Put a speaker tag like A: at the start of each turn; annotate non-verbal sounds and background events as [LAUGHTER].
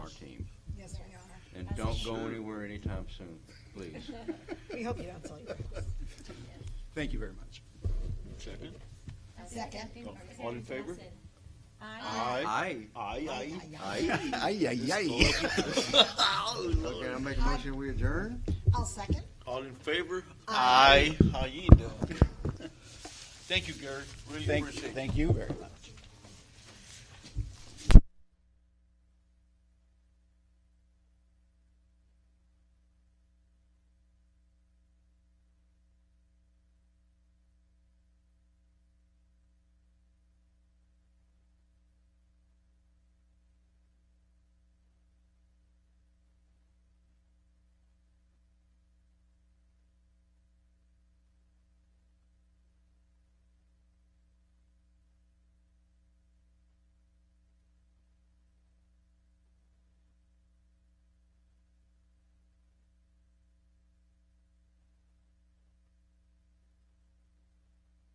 A: Don't go anywhere anytime soon, please. [LAUGHS]
B: We hope you don't sell your house.
C: Thank you very much. Second?
B: Second.
C: All in favor?
A: Aye.
C: Aye, aye.
A: Aye.
D: Ay, ay, ay.
A: Okay, I'll make a motion, we adjourn?
B: I'll second.
C: All in favor? Aye. How you doing? [LAUGHS] Thank you, Gary. Really
D: Thank,
C: appreciate it.
D: thank you very much.